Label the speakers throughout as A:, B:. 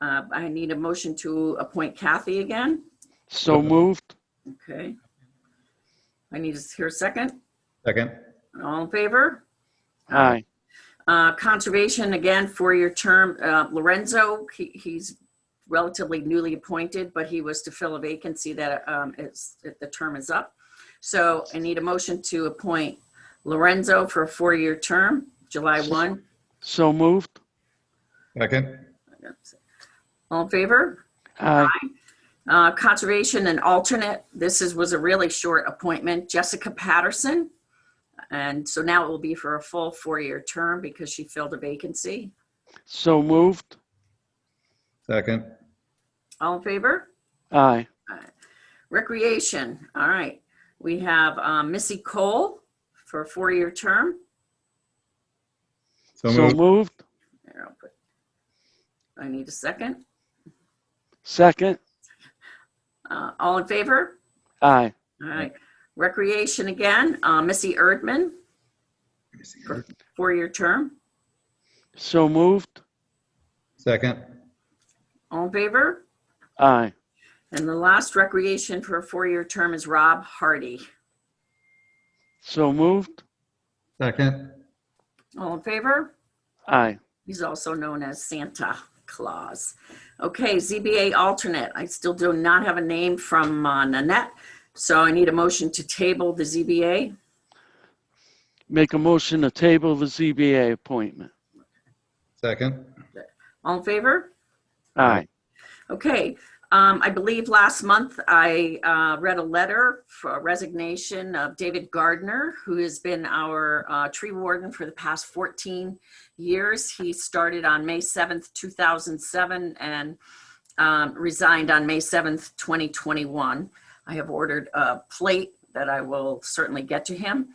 A: Uh, I need a motion to appoint Kathy again.
B: So moved.
A: Okay. I need to hear a second.
C: Second.
A: All in favor?
B: Aye.
A: Uh, Conservation, again, four-year term. Uh, Lorenzo, he- he's relatively newly appointed, but he was to fill a vacancy that um, is, that the term is up. So I need a motion to appoint Lorenzo for a four-year term, July 1.
B: So moved.
C: Second.
A: All in favor?
B: Aye.
A: Uh, Conservation and alternate, this is, was a really short appointment, Jessica Patterson. And so now it will be for a full four-year term because she filled a vacancy.
B: So moved.
C: Second.
A: All in favor?
B: Aye.
A: Recreation, all right. We have um, Missy Cole for a four-year term.
C: So
B: So
C: moved.
B: moved.
A: There, I'll put- I need a second.
B: Second.
A: Uh, All in favor?
B: Aye.
A: All right. Recreation again, uh, Missy Erdman, four-year term.
B: So moved.
C: Second.
A: All in favor?
B: Aye.
A: And the last recreation for a four-year term is Rob Hardy.
B: So moved.
C: Second.
A: All in favor?
B: Aye.
A: He's also known as Santa Claus. Okay, ZBA alternate. I still do not have a name from uh, Nanette, so I need a motion to table the ZBA.
B: Make a motion to table the ZBA appointment.
C: Second.
A: All in favor?
B: Aye.
A: Okay, um, I believe last month I, uh, read a letter for resignation of David Gardner, who has been our, uh, tree warden for the past fourteen years. He started on May seventh, two thousand seven, and, um, resigned on May seventh, twenty twenty-one. I have ordered a plate that I will certainly get to him.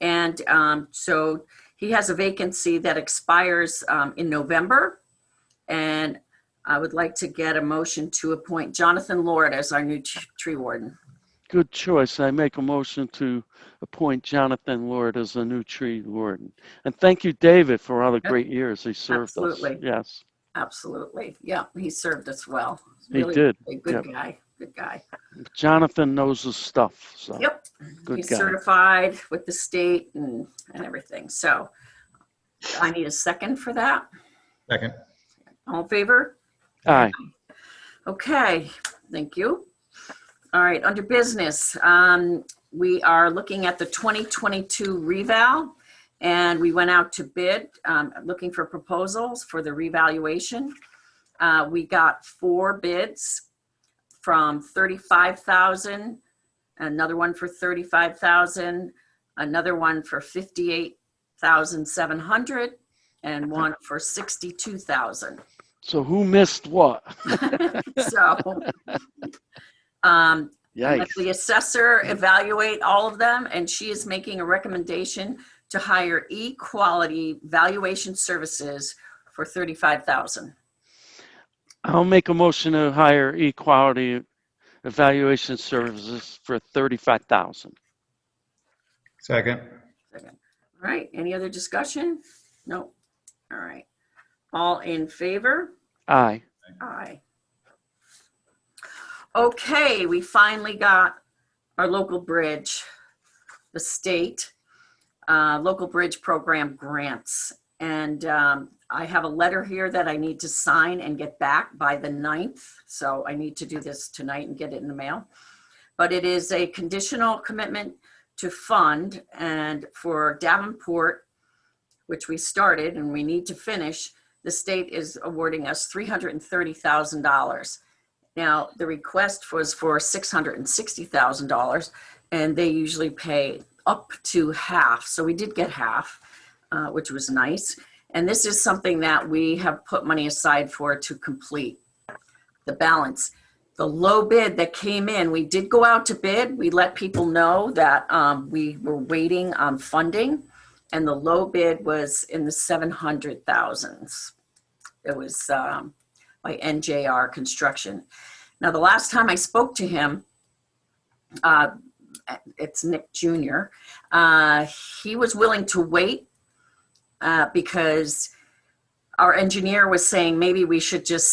A: And, um, so he has a vacancy that expires, um, in November. And I would like to get a motion to appoint Jonathan Lord as our new t- tree warden.
B: Good choice. I make a motion to appoint Jonathan Lord as the new tree warden. And thank you, David, for all the great years he served us.
A: Absolutely.
B: Yes,
A: Absolutely. Yeah, he served us well.
B: he
A: Really
B: did.
A: A good guy, good guy.
B: Jonathan knows his stuff, so.
A: Yep.
B: Uh, Good
A: He's
B: guy.
A: certified with the state and, and everything. So I need a second for that.
C: Second.
A: All in favor?
B: Aye.
A: Okay, thank you. All right, under business, um, we are looking at the 2022 reval. And we went out to bid, um, looking for proposals for the revaluation. Uh, we got four bids from 35,000, another one for 35,000, another one for 58,700, and one for 62,000.
B: So who missed what?
A: So, um, let
B: Yikes.
A: the assessor evaluate all of them, and she is making a recommendation to hire E-Quality Valuation Services for thirty-five thousand.
B: I'll make a motion to hire Equality Evaluation Services for thirty-five thousand.
C: Second.
A: All right, any other discussion? No. All right. All in favor?
B: Aye.
A: Aye. Okay, we finally got our local bridge, the state, uh, local bridge program grants. And um, I have a letter here that I need to sign and get back by the 9th. So I need to do this tonight and get it in the mail. But it is a conditional commitment to fund and for Davenport, which we started and we need to finish, the state is awarding us three hundred and thirty thousand dollars. Now, the request was for six hundred and sixty thousand dollars, and they usually pay up to half, so we did get half, uh, which was nice. And this is something that we have put money aside for to complete the balance. The low bid that came in, we did go out to bid. We let people know that um, we were waiting on funding and the low bid was in the seven hundred thousands. It was um, by NJR Construction. Now, the last time I spoke to him, uh, it's Nick Jr. Uh, he was willing to wait uh, because our engineer was saying maybe we should just